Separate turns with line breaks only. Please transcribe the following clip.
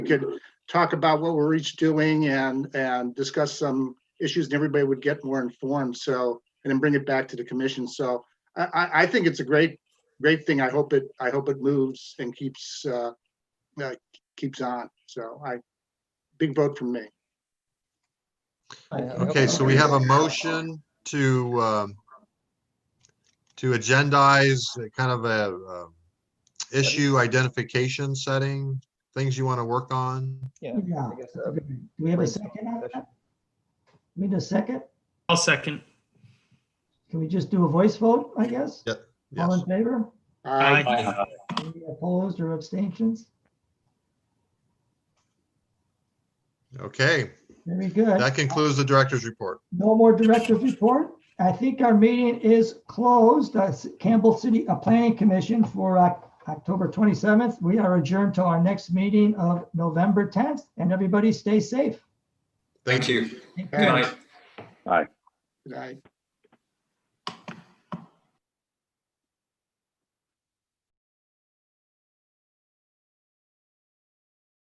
could talk about what we're each doing and, and discuss some issues and everybody would get more informed. So, and then bring it back to the commission. So I, I, I think it's a great, great thing. I hope it, I hope it moves and keeps, uh, uh, keeps on. So I, big vote from me.
Okay, so we have a motion to, um, to agendize a kind of a, um, issue identification setting, things you want to work on.
Yeah,
Yeah.
I guess, uh,
Do we have a second on that? Need a second?
I'll second.
Can we just do a voice vote, I guess?
Yeah,
All
Yes,
in favor?
Aye.
Aye.
Any Opposed or abstentions?
okay.
Very good.
That concludes the director's report.
No more director's report. I think our meeting is closed. That's Campbell City uh, Planning Commission for Oc- October 27th. We are adjourned to our next meeting of November 10th. And everybody stay safe.
Thank you.
Take
Good
care.
night.
Good night.